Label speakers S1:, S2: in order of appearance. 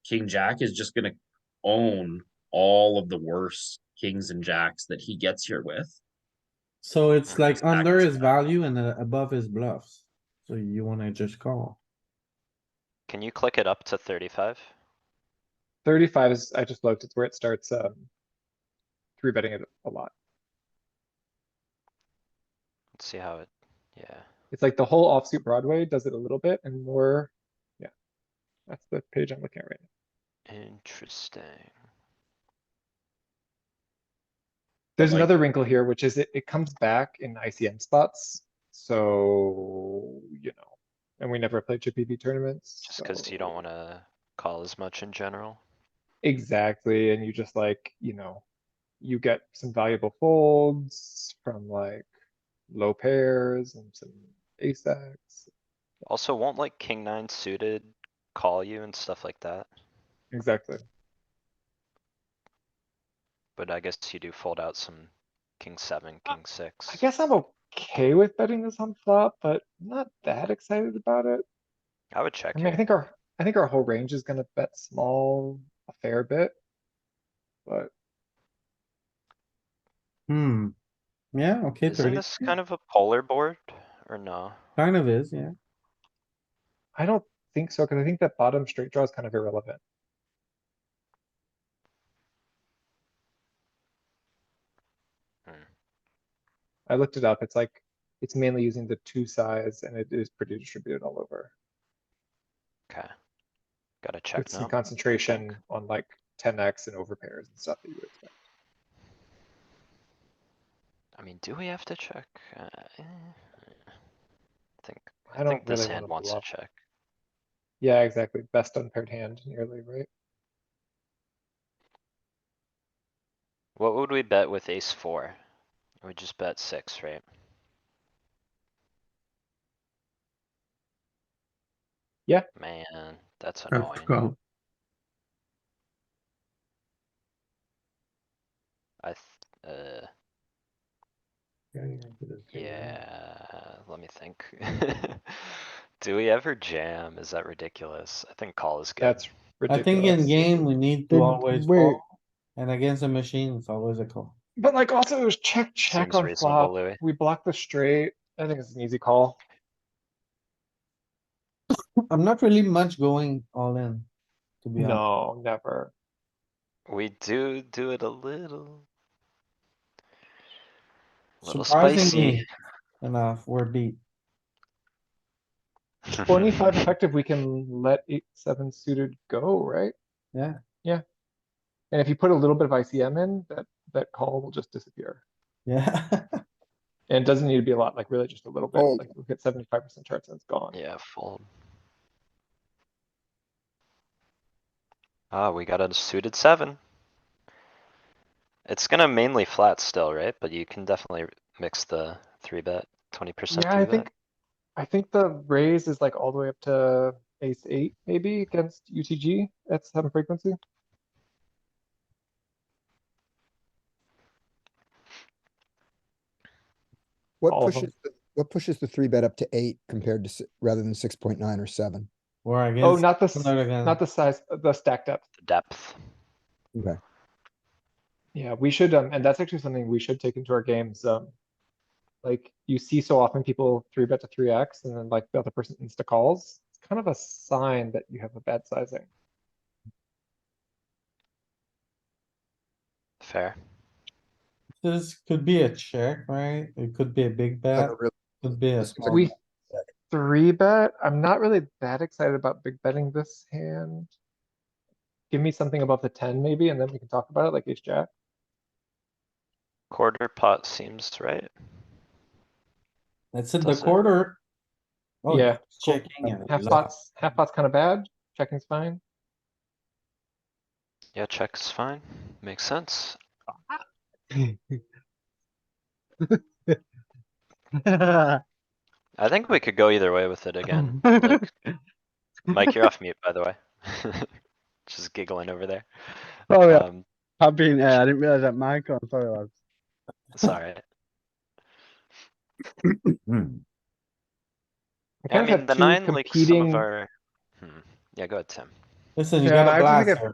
S1: King Jack is just gonna own all of the worst kings and jacks that he gets here with.
S2: So it's like
S1: Stack
S2: under
S1: is
S2: his
S1: up.
S2: value and uh, above his bluffs. So you wanna just call.
S3: Can you click it up to thirty-five?
S4: Thirty-five is, I just looked, it's where it starts, um. Three betting it a lot.
S3: Let's see how it, yeah.
S4: It's like the whole offsuit Broadway does it a little bit and more, yeah. That's the page I'm looking at right now.
S3: Interesting.
S4: There's
S1: like-
S4: another wrinkle here, which is it, it comes back in ICM spots, so, you know. And we never play Chippy V tournaments.
S3: Just cuz you
S4: so-
S3: don't wanna call as much in general.
S4: Exactly, and you just like, you know, you get some valuable folds from like low pairs and some ace X.
S3: Also, won't like king nine suited call you and stuff like that?
S4: Exactly.
S3: But I guess you do fold out some king seven, king six.
S4: Uh, I guess I'm okay with betting this on flop, but not that excited about it.
S3: I would check
S4: I mean, I
S3: here.
S4: think our, I think our whole range is gonna bet small a fair bit. But
S2: Hmm. Yeah, okay,
S3: Isn't
S2: thirty,
S3: this kind of a polar board or no?
S2: kind of is, yeah.
S4: I don't think so, cuz I think that bottom straight draw is kind of irrelevant.
S3: Hmm.
S4: I looked it up, it's like, it's mainly using the two size and it is pretty distributed all over.
S3: Okay. Gotta
S4: With
S3: check
S4: some
S3: now.
S4: concentration on like ten X and over pairs and stuff that you would expect.
S3: I mean, do we have to check? Uh, eh, I Think,
S4: I
S3: I
S4: don't
S3: think this
S4: really wanna
S3: hand wants to
S4: bluff.
S3: check.
S4: Yeah, exactly, best unpaired hand nearly, right?
S3: What would we bet with ace four? We just bet six, right?
S4: Yeah.
S3: Man, that's
S4: Oh,
S5: Have to
S3: annoying.
S5: call.
S3: I, th- uh, yeah, let me think. Do we ever jam? Is that ridiculous? I think call is good.
S4: That's
S2: I
S4: ridiculous.
S2: think in game, we need to
S5: Then
S2: always
S5: where-
S2: call. And against a machine, it's always a call.
S4: But like also it was check, check
S3: Seems
S4: on
S3: reasonable,
S4: flop,
S3: Louis.
S4: we block the straight, I think it's an easy call.
S2: I'm not really much going all in. To be honest,
S4: No, never.
S3: We do do it a little. Little spicy.
S2: surprisingly enough, we're beat.
S4: Twenty-five effective, we can let eight, seven suited go, right?
S2: Yeah.
S4: Yeah. And if you put a little bit of ICM in, that, that call will just disappear.
S2: Yeah.
S4: And it doesn't need to be a lot, like really just a little bit,
S5: Oh.
S4: like look at seventy-five percent charts and it's gone.
S3: Yeah, fold. Ah, we got a suited seven. It's gonna mainly flat still, right? But you can definitely mix the three bet, twenty percent
S4: Yeah, I
S3: three
S4: think,
S3: bet.
S4: I think the raise is like all the way up to ace eight, maybe against UTG at some frequency.
S6: What
S4: All of 'em.
S6: pushes, the- what pushes the three bet up to eight compared to, si- rather than six point nine or seven?
S2: We're
S4: Oh,
S2: against.
S4: not the, s- not
S2: against.
S4: the size, the stack depth.
S3: The Depth.
S6: Okay.
S4: Yeah, we should, um, and that's actually something we should take into our games, um. Like, you see so often people three bet to three X and then like the other person insta calls, it's kind of a sign that you have a bad sizing.
S3: Fair.
S2: This could be a check, right? It could be a big
S5: Not
S2: bet,
S5: a real-
S2: could be a
S5: This
S2: small.
S4: We three bet, I'm not really that excited about big betting this hand. Give me something above the ten maybe, and then we can talk about it like ace jack.
S3: Quarter pot seems right.
S2: That's it, the
S3: Does it-
S2: quarter. Oh,
S4: Yeah.
S2: it's Checking. and
S4: Half
S2: low.
S4: pots, half pots kind of bad, checking's fine.
S3: Yeah, check's fine. Makes sense. I think we could go either way with it again. Like, Mike, you're off mute, by the way. Just giggling over there.
S5: Oh, yeah.
S3: Um,
S5: I've been, uh, I didn't realize that mic on, sorry lads.
S3: it's alright.
S4: I
S3: I
S4: kind of
S3: mean,
S4: have
S3: the
S4: two
S3: nine, like some
S4: competing-
S3: of our. Hmm. Yeah, go ahead, Tim.
S4: Listen, you
S2: Yeah,
S4: got
S2: I
S4: a
S2: actually
S4: blast
S2: think
S4: here.